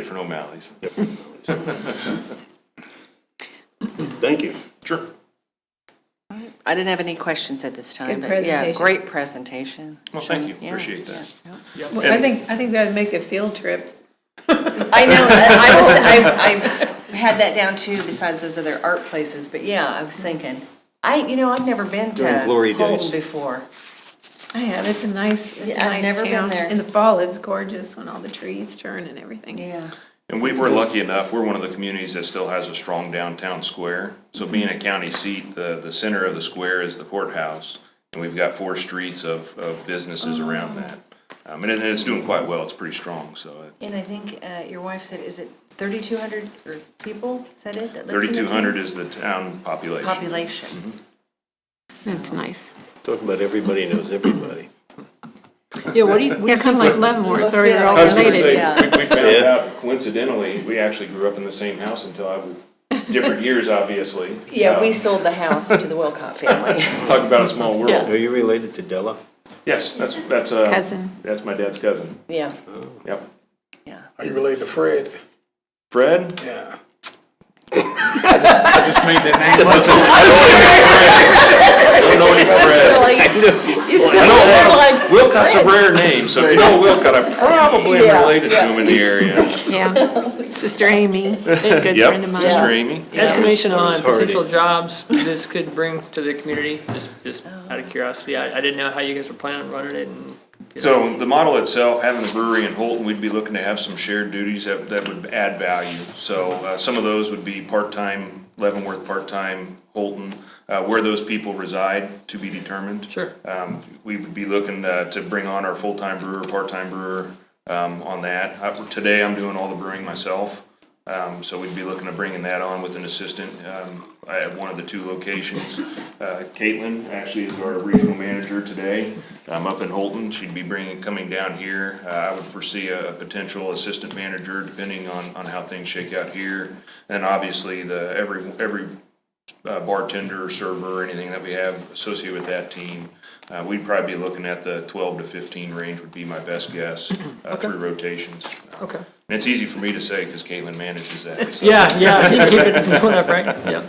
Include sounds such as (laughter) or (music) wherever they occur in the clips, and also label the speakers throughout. Speaker 1: Different O'Malley's.
Speaker 2: Thank you.
Speaker 1: Sure.
Speaker 3: I didn't have any questions at this time,
Speaker 4: Good
Speaker 3: but yeah,
Speaker 4: presentation.
Speaker 3: great presentation.
Speaker 1: Well, thank you,
Speaker 3: Yeah,
Speaker 1: appreciate that.
Speaker 3: yeah, yeah.
Speaker 4: Well, I think, I think we ought to make a field trip.
Speaker 3: I know, I I was, I, I had that down too, besides those other art places, but yeah, I was thinking, I, you know, I've never been to
Speaker 2: During glory days.
Speaker 3: Holden before.
Speaker 4: I have, it's a nice, it's a
Speaker 3: Yeah, I've
Speaker 4: nice
Speaker 3: never been
Speaker 4: town.
Speaker 3: there.
Speaker 4: In the fall, it's gorgeous when all the trees turn and everything.
Speaker 3: Yeah.
Speaker 1: And we were lucky enough, we're one of the communities that still has a strong downtown square. So being
Speaker 3: Mm-hmm.
Speaker 1: a county seat, the, the center of the square is the courthouse. And we've got four streets of, of businesses
Speaker 3: Oh.
Speaker 1: around that. Um, and it- and it's doing quite well, it's pretty strong, so
Speaker 3: And I think uh, your wife said, is it 3,200 or people, is that it? that lives in the town?
Speaker 1: thirty-two hundred is the town population.
Speaker 3: Population.
Speaker 4: That's nice.
Speaker 2: Talk about everybody knows everybody.
Speaker 5: Yeah, what do you,
Speaker 4: Yeah, kind of like Leavenworth, where you're all
Speaker 1: I was gonna say,
Speaker 4: related.
Speaker 3: Yeah.
Speaker 1: we, we found
Speaker 2: Yeah.
Speaker 1: out coincidentally, we actually grew up in the same house until I was,
Speaker 3: (laughs)
Speaker 1: different years, obviously.
Speaker 3: Yeah, we
Speaker 1: Um,
Speaker 3: sold the house to the Wilcott family. (laughs)
Speaker 1: Talk about a small world.
Speaker 2: Are you related to Della?
Speaker 1: Yes, that's, that's, uh,
Speaker 4: Cousin.
Speaker 1: That's my dad's cousin,
Speaker 3: Yeah,
Speaker 1: yep.
Speaker 3: yeah.
Speaker 6: Are you related to Fred?
Speaker 1: Fred?
Speaker 6: Yeah. I just made that name up.
Speaker 1: I don't know any
Speaker 2: (laughs)
Speaker 1: Freds.
Speaker 6: (laughs)
Speaker 3: (laughs)
Speaker 1: I know, Wilcott's a rare name, so if you know Wilcott, I probably am
Speaker 3: Yeah,
Speaker 1: related to him in the area.
Speaker 4: (laughs) Yeah. Sister
Speaker 5: (laughs)
Speaker 4: Amy, a good friend of
Speaker 1: Yep,
Speaker 4: mine.
Speaker 1: Sister Amy.
Speaker 5: estimation
Speaker 2: I was
Speaker 5: on
Speaker 2: already-
Speaker 5: potential jobs this could bring to the community, just, just out of curiosity, I, I didn't know how you guys were planning on running it and.
Speaker 1: So the model itself, having the brewery in Holton, we'd be looking to have some shared duties that, that would add value. So, uh, some of those would be part-time Leavenworth, part-time Holton, uh, where those people reside to be determined.
Speaker 5: Sure.
Speaker 1: Um, we would be looking uh, to bring on our full-time brewer, part-time brewer um, on that. Uh, Today, I'm doing all the brewing myself, Um, so we'd be looking to bringing that on with an assistant um, at one of the two locations. Uh, Caitlin actually is our regional manager today, um, up in Holton. She'd be bringing, coming down here. Uh, I would foresee a a potential assistant manager depending on, on how things shake out here. And obviously, the, every, every uh, bartender, server, anything that we have associated with that team. Uh, We'd probably be looking at the 12 to 15 range would be my best guess uh, through rotations.
Speaker 5: Okay.
Speaker 1: And it's easy for me to say because Caitlin manages that. so-
Speaker 5: Yeah, (laughs) yeah, you keep it going up, right? Yeah.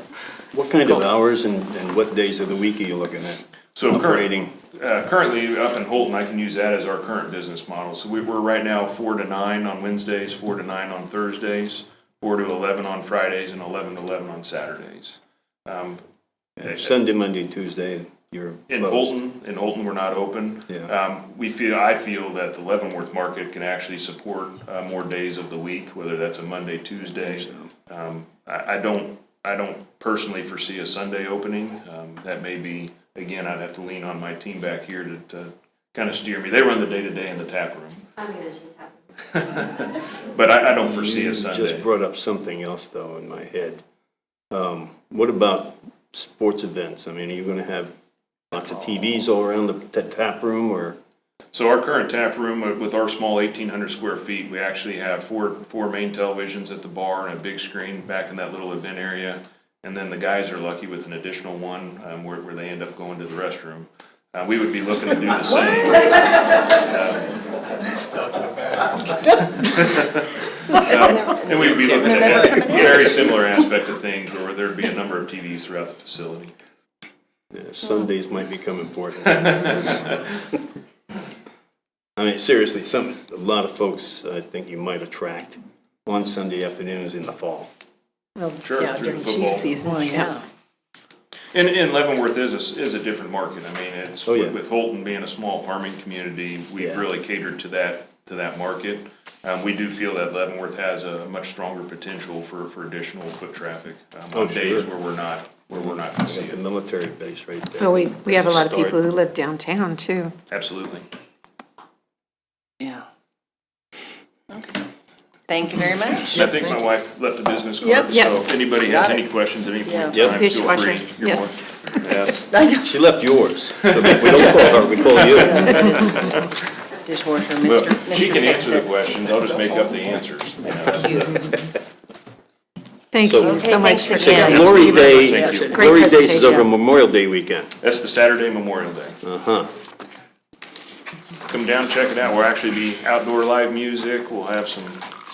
Speaker 2: What kind of hours and, and what days of the week are you looking at?
Speaker 1: So current-
Speaker 2: Operating,
Speaker 1: uh, Currently, up in Holton, I can use that as our current business model. So we- we're right now four to nine on Wednesdays, four to nine on Thursdays, four to 11 on Fridays, and 11 to 11 on Saturdays.
Speaker 2: uh, Sunday, Monday, Tuesday, you're
Speaker 1: In
Speaker 2: closed.
Speaker 1: Holton, in Holton, we're not open.
Speaker 2: Yeah.
Speaker 1: Um, we feel, I feel that the Leavenworth market can actually support, uh, more days of the week, whether that's a Monday, Tuesday. Um, I, I don't, I don't personally foresee a Sunday opening. Um, that may be, again, I'd have to lean on my team back here to, to kind of steer me. They run the day-to-day in the tap room.
Speaker 7: I'm gonna just
Speaker 1: (laughs)
Speaker 7: have
Speaker 1: But I, I don't foresee a
Speaker 2: Just
Speaker 1: Sunday.
Speaker 2: brought up something else though in my head. Um, What about sports events? I mean, are you gonna have lots of TVs all around the the tap room or?
Speaker 1: So our current tap room uh, with our small eighteen hundred square feet, we actually have four, four main televisions at the bar and a big screen back in that little event area. And then the guys are lucky with an additional one, um, where, where they end up going to the restroom. Uh, we would be looking to do the same. Um, (laughs) And we'd be looking at a very similar aspect of things where there'd be a number of TVs throughout the facility.
Speaker 2: Yeah, Sundays might become important. I mean, seriously, some, a lot of folks, I think you might attract on Sunday afternoons in the fall.
Speaker 1: Sure, through
Speaker 4: Yeah,
Speaker 1: the
Speaker 4: during
Speaker 1: football.
Speaker 4: chief season, yeah.
Speaker 1: And, and Leavenworth is a, s- is a different market, I mean, it's,
Speaker 2: Oh, yeah.
Speaker 1: with Holton being a small farming community, we've
Speaker 2: Yeah.
Speaker 1: really catered to that, to that market. Um, we do feel that Leavenworth has a much stronger potential for, for additional foot traffic, um,
Speaker 2: Oh,
Speaker 1: on days
Speaker 2: sure.
Speaker 1: where we're not, where we're not gonna see
Speaker 2: Got the
Speaker 1: it,
Speaker 2: military base right there.
Speaker 4: Well, we, we have a lot of
Speaker 2: That's start.
Speaker 4: people who live downtown too.
Speaker 1: absolutely.
Speaker 3: Yeah. Okay. Thank you very much. (laughs)
Speaker 1: I think my wife left a business
Speaker 3: Yep.
Speaker 1: card, so
Speaker 4: Yes.
Speaker 1: if anybody has
Speaker 3: Got
Speaker 1: any
Speaker 3: it.
Speaker 1: questions at any point in
Speaker 3: Yeah.
Speaker 1: time, feel
Speaker 4: Dishwasher.
Speaker 1: free. You're
Speaker 4: Yes.
Speaker 1: more- Yes.
Speaker 2: She left yours, so that we don't call her, we call you.
Speaker 3: That is Dishwasher, Mr. Mr.
Speaker 1: She can answer the
Speaker 3: Fix-It.
Speaker 1: questions, I'll just make up the answers. you know,
Speaker 3: (laughs)
Speaker 1: That's
Speaker 3: Cute.
Speaker 4: Thank
Speaker 2: So-
Speaker 4: you
Speaker 2: Okay,
Speaker 4: so much
Speaker 3: thanks
Speaker 4: for
Speaker 3: again.
Speaker 4: sharing.
Speaker 2: Glory
Speaker 1: Thank
Speaker 2: Day,
Speaker 1: you.
Speaker 4: Great
Speaker 2: Glory Days is
Speaker 4: presentation.
Speaker 2: over Memorial Day weekend.
Speaker 1: That's the Saturday Memorial Day.
Speaker 2: Uh-huh.
Speaker 1: come down, check it out. We'll actually be outdoor live music. We'll have some